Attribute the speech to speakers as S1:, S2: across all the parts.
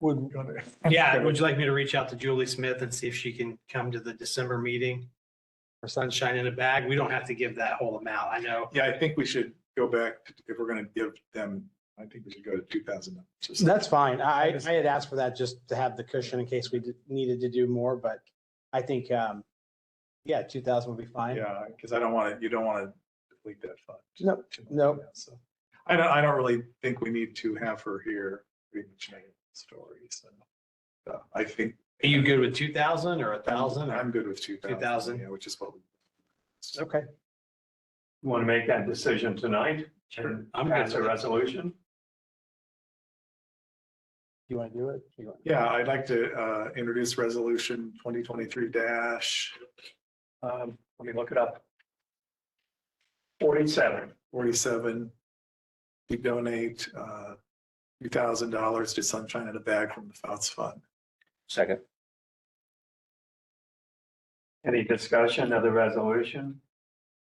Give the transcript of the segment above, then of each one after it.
S1: would,
S2: Gonna-
S3: Yeah, would you like me to reach out to Julie Smith and see if she can come to the December meeting? For sunshine in a bag, we don't have to give that whole amount, I know.
S2: Yeah, I think we should go back, to- if we're gonna give them, I think we should go to two thousand.
S4: That's fine. I, I had asked for that just to have the cushion in case we did- needed to do more, but I think, um, yeah, two thousand would be fine.
S2: Yeah, because I don't want to, you don't want to delete that fund.
S4: Nope, nope.
S2: So, I don't, I don't really think we need to have her here pretty much making stories. So uh, I think
S3: Are you good with two thousand or a thousand?
S2: I'm good with two thousand.
S3: 2,000?
S2: Yeah, which is what we.
S4: Okay.
S5: Want to make that decision tonight?
S3: Sure. I'm
S5: I'm
S3: good
S5: pass a
S3: with it.
S5: resolution?
S4: You want to do it? You want-
S2: Yeah, I'd like to uh, introduce resolution twenty twenty-three dash
S5: Um, let me look it up. Forty-seven.
S2: forty-seven. We donate uh, two thousand dollars to Sunshine in a Bag from the Fouts Fund.
S6: Second.
S5: Any discussion of the resolution?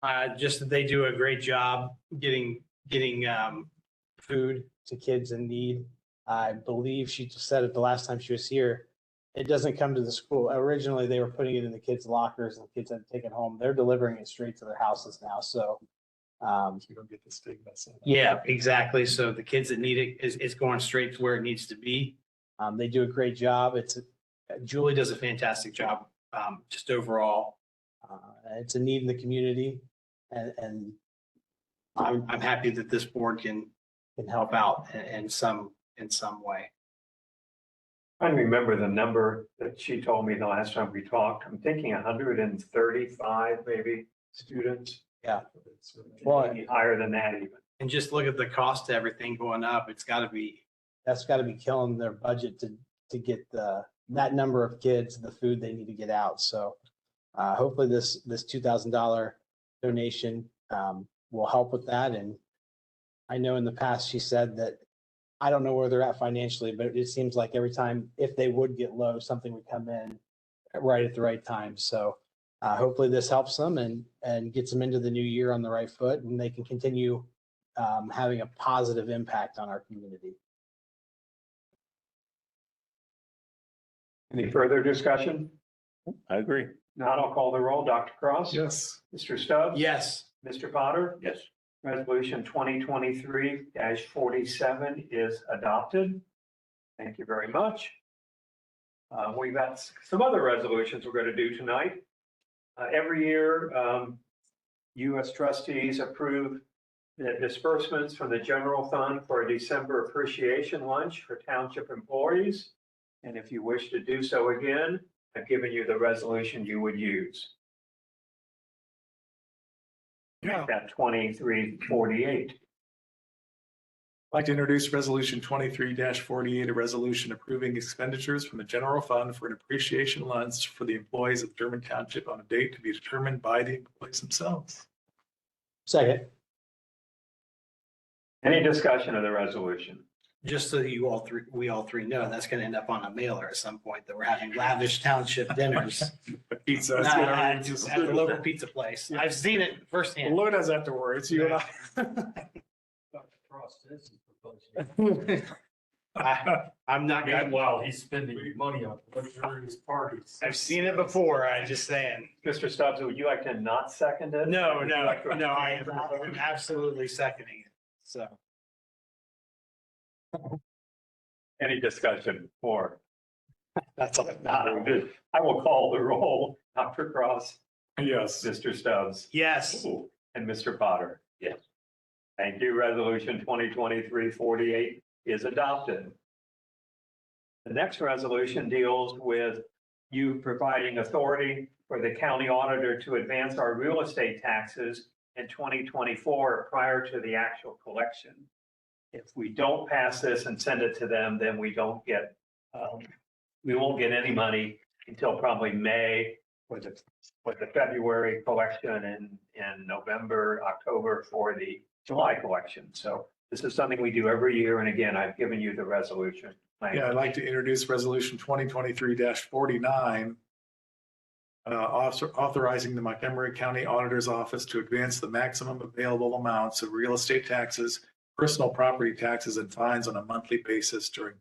S3: Uh, just that they do a great job getting, getting, um, food.
S4: To kids in need. I believe she said it the last time she was here. It doesn't come to the school. Originally, they were putting it in the kids' lockers and the kids had to take it home. They're delivering it straight to their houses now, so. Um,
S2: You don't get the stigma. so.
S3: Yeah, exactly. So the kids that need it is, it's going straight to where it needs to be.
S4: um, they do a great job. It's,
S3: Julie does a fantastic job, um, just overall.
S4: uh, it's a need in the community and, and
S3: I'm, I'm happy that this board can,
S4: can help
S3: help out in, in some, in some way.
S5: I remember the number that she told me the last time we talked. I'm thinking hundred and thirty-five maybe students.
S4: Yeah. Well,
S5: Maybe Higher than that even.
S3: And just look at the cost of everything going up. It's gotta be,
S4: that's got to be killing their budget to, to get the, that number of kids, the food they need to get out. So uh, hopefully this, this two thousand dollar donation um, will help with that. And I know in the past, she said that, I don't know where they're at financially, but it seems like every time, if they would get low, something would come in right at the right time. So uh, hopefully this helps them and, and gets them into the new year on the right foot and they can continue um, having a positive impact on our community.
S5: Any further discussion?
S6: I agree.
S5: Not, I'll call the roll. Dr. Cross?
S2: Yes.
S5: Mr. Stubbs?
S3: yes.
S5: Mr. Potter?
S6: Yes.
S5: Resolution twenty twenty-three forty-seven is adopted. Thank you very much. Uh, we've got s- some other resolutions we're gonna do tonight. Uh, every year, um, you as trustees approve the disbursements from the general fund for a December appreciation lunch for township employees. And if you wish to do so again, I've given you the resolution you would use.
S2: Yeah.
S5: That twenty-three forty-eight.
S2: I'd like to introduce Resolution twenty-three forty-eight, a resolution approving expenditures from the general fund for an appreciation lunch for the employees of German Township on a date to be determined by the employees themselves.
S4: Second.
S5: Any discussion of the resolution?
S3: Just so you all three, we all three know, that's gonna end up on a mailer at some point that we're having lavish township dinners.
S2: A pizza.
S3: Not At
S2: Just-
S3: at the local pizza place. I've seen it firsthand.
S2: Lou does afterwards, you and I.
S7: Dr. Cross is proposing.
S3: I, I'm not
S7: Meanwhile,
S3: gonna,
S7: he's spending money on luxurious parties.
S3: I've seen it before. I'm just saying.
S5: Mr. Stubbs, would you like to not second it?
S3: No, no, no, I am I'm absolutely seconding it. So.
S5: Any discussion for?
S3: That's all.
S5: I will call the roll. Dr. Cross,
S2: Yes.
S5: Mr. Stubbs,
S3: Yes,
S5: and Mr. Potter.
S6: Yes.
S5: Thank you. Resolution 2023-48 is adopted. The next resolution deals with you providing authority for the county auditor to advance our real estate taxes in 2024 prior to the actual collection. If we don't pass this and send it to them, then we don't get, um, we won't get any money until probably May with the, with the February collection and, and November, October for the July collection. So this is something we do every year. And again, I've given you the resolution.
S2: Yeah, I'd like to introduce Resolution twenty twenty-three forty-nine. Uh, author- authorizing the Montgomery County Auditor's Office to advance the maximum available amounts of real estate taxes, personal property taxes and fines on a monthly basis during